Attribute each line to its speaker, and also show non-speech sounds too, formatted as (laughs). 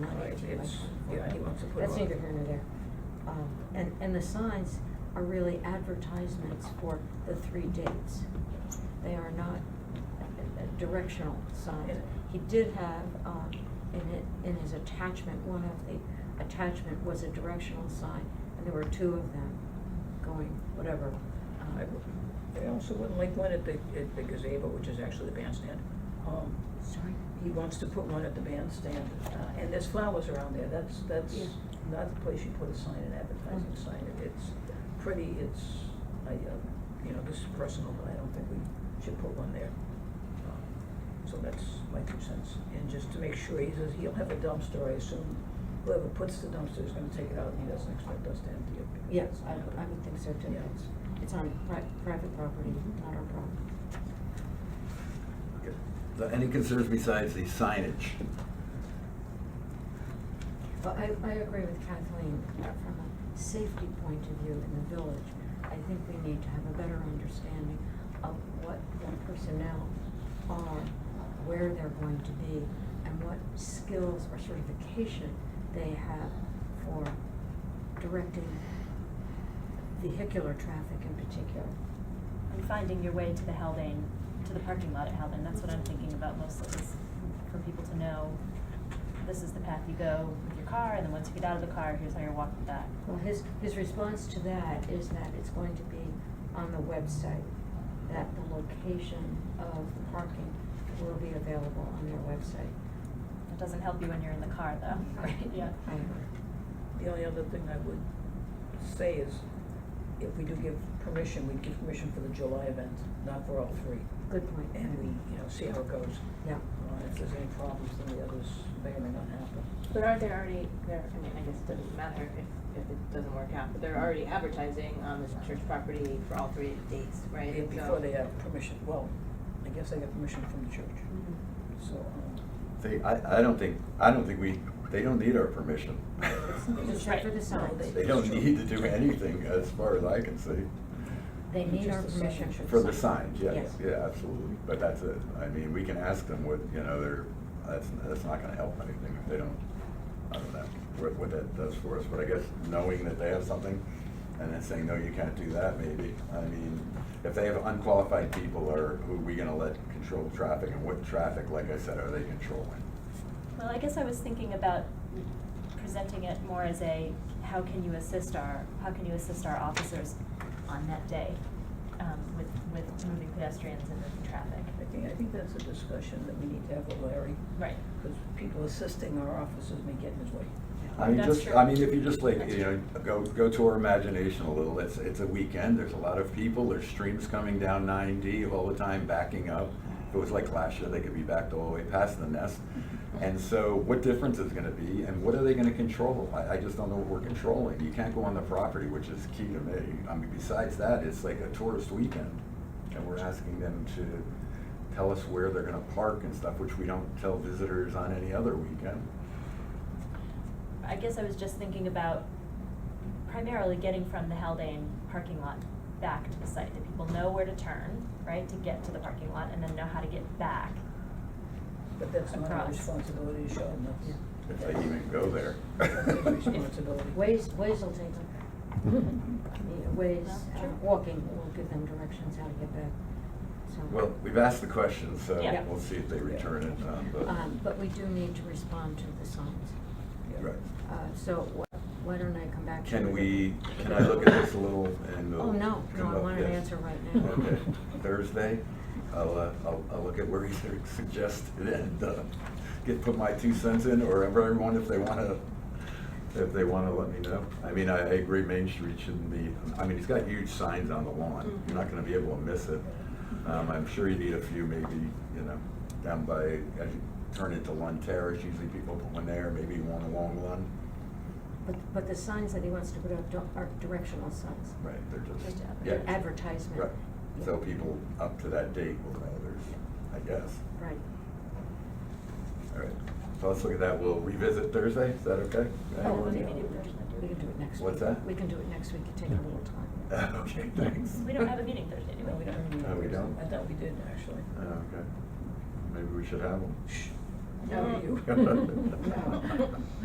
Speaker 1: it's, yeah, he wants to put it
Speaker 2: That's
Speaker 1: on.
Speaker 2: neither here nor there. Um, and, and the signs are really advertisements for the three dates. They are not uh, uh, directional signs. He did have, um, in it, in his attachment, one of the attachment was a directional sign, and there were two of them going, whatever. um,
Speaker 1: I w- They also wouldn't like one at the, at the gazebo, which is actually the bandstand. Um,
Speaker 2: Sorry?
Speaker 1: He wants to put one at the bandstand, uh, and there's flowers around there, that's, that's
Speaker 2: Yeah.
Speaker 1: not the place you put a sign, an advertising
Speaker 2: Mm.
Speaker 1: sign. It- It's pretty, it's, I, uh, you know, this is personal, but I don't think we should put one there. Um, So that's my two cents, and just to make sure, he says he'll have a dumpster, I assume whoever puts the dumpster is gonna take it out, and he doesn't expect us to empty it. because
Speaker 2: Yes,
Speaker 1: that's
Speaker 2: I,
Speaker 1: not-
Speaker 2: I would think so too.
Speaker 1: Yeah.
Speaker 2: It's- It's on pri- private property, not our property.
Speaker 3: Uh, Any concerns besides the signage?
Speaker 2: Well, I, I agree with Kathleen, uh, from a safety point of view in the village, I think we need to have a better understanding of what the personnel are, where they're going to be, and what skills or certification they have for directing vehicular traffic in particular.
Speaker 4: And finding your way to the Haldane, to the parking lot at Haldane, that's what I'm thinking about mostly, is for people to know, this is the path you go with your car, and then once you get out of the car, here's how you're walking back.
Speaker 2: Well, his, his response to that is that it's going to be on the website, that the location of the parking will be available on their website.
Speaker 4: It doesn't help you when you're in the car, though, (laughs) right?
Speaker 2: (laughs)
Speaker 4: Yeah.
Speaker 2: I agree.
Speaker 1: The only other thing I would say is, if we do give permission, we'd give permission for the July event, not for all three.
Speaker 2: Good point.
Speaker 1: And we, you know, see how it goes.
Speaker 2: Yeah.
Speaker 1: Uh, If there's any problems, then the others may or may not happen.
Speaker 5: But are there already, there, I mean, I guess it doesn't matter if, if it doesn't work out, but they're already advertising on the church property for all three dates, right?
Speaker 1: Yeah,
Speaker 5: And so-
Speaker 1: Before they have permission, well, I guess they got permission from the church,
Speaker 2: Mm-hmm.
Speaker 5: Mhm.
Speaker 1: so, um,
Speaker 3: They, I, I don't think, I don't think we, they don't need our permission.
Speaker 2: Except for the signs.
Speaker 3: They don't need to do anything as far as I can see.
Speaker 2: They need our
Speaker 1: Just the sign.
Speaker 2: permission.
Speaker 3: For the signs, yeah,
Speaker 2: Yes.
Speaker 3: yeah, absolutely. But that's it. I mean, we can ask them what, you know, they're, that's, that's not gonna help anything if they don't, I don't know, what, what that does for us. But I guess knowing that they have something and then saying, no, you can't do that, maybe. I mean, if they have unqualified people or who are we gonna let control traffic and what traffic, like I said, are they controlling?
Speaker 4: Well, I guess I was thinking about presenting it more as a, how can you assist our, how can you assist our officers on that day, um, with, with moving pedestrians and moving traffic?
Speaker 1: I think, I think that's a discussion that we need to have with Larry,
Speaker 4: Right.
Speaker 1: because people assisting our officers may get in his way.
Speaker 3: I mean,
Speaker 4: That's
Speaker 3: just,
Speaker 4: true.
Speaker 3: I mean, if you just like,
Speaker 4: That's
Speaker 3: you know, go, go to our imagination a little, it's, it's a weekend, there's a lot of people, there's streams coming down nine D all the time backing up. If it was like last year, they could be backed all the way past the
Speaker 4: (laughs)
Speaker 3: nest. And so what difference is gonna be and what are they gonna control? I, I just don't know what we're controlling. You can't go on the property, which is key to me. I mean, besides that, it's like a tourist weekend. And we're asking them to tell us where they're gonna park and stuff, which we don't tell visitors on any other weekend.
Speaker 4: I guess I was just thinking about primarily getting from the Haldane parking lot back to the site, that people know where to turn, right, to get to the parking lot, and then know how to get back.
Speaker 1: But that's not our
Speaker 4: Across.
Speaker 1: responsibility to show them,
Speaker 2: Yeah.
Speaker 1: that's.
Speaker 3: If they even go there.
Speaker 1: That's their responsibility. (laughs)
Speaker 2: Ways, ways will take them. Yeah, Ways,
Speaker 4: Yeah,
Speaker 2: uh,
Speaker 4: sure.
Speaker 2: walking will give them directions how to get back, so.
Speaker 3: Well, we've asked the question, so
Speaker 4: Yeah.
Speaker 3: we'll see if they return it, um,
Speaker 2: Um,
Speaker 3: but,
Speaker 2: but we do need to respond to the signs.
Speaker 1: Yeah.
Speaker 3: right.
Speaker 2: Uh, so wh- why don't I come back to you?
Speaker 3: Can
Speaker 2: with a-
Speaker 3: we, can I look at this a little and? we'll
Speaker 2: Oh, no, no,
Speaker 3: come
Speaker 2: I
Speaker 3: up-
Speaker 2: want an
Speaker 3: yes.
Speaker 2: answer right now.
Speaker 3: Okay, Thursday, I'll, uh, I'll, I'll look at where he (laughs) suggested and, uh, get, put my two cents in, or everyone if they wanna, if they wanna let me know. I mean, I, I agree, Main Street shouldn't be, I mean, he's got huge signs on the
Speaker 2: Mm-hmm.
Speaker 3: lawn, you're not gonna be able to miss it. Um, I'm sure you need a few maybe, you know, down by, as you turn into Lund Terrace, usually people put one there, maybe one along Lund.
Speaker 2: But, but the signs that he wants to put up don't- are directional signs.
Speaker 3: Right, they're just,
Speaker 4: Just
Speaker 3: yeah.
Speaker 2: They're advertisement.
Speaker 3: Right,
Speaker 2: Yeah.
Speaker 3: so people up to that date will know there's, I guess.
Speaker 2: Right.
Speaker 3: All right, so let's look at that, we'll revisit Thursday, is that okay?
Speaker 2: Oh,
Speaker 3: Anyone?
Speaker 2: we can do it. We can do it next week.
Speaker 3: What's that?
Speaker 2: We can do it next week, it take a little time.
Speaker 3: (laughs) (laughs) Okay, thanks.
Speaker 4: We don't
Speaker 3: (laughs)
Speaker 4: have a meeting Thursday, do
Speaker 1: No, we
Speaker 4: we?
Speaker 1: don't.
Speaker 3: No, we don't.
Speaker 1: I thought we did, actually.
Speaker 3: Oh, Okay, maybe we should have one.
Speaker 1: Shh, no, you. (laughs)
Speaker 3: (laughs)
Speaker 5: (laughs)
Speaker 3: No.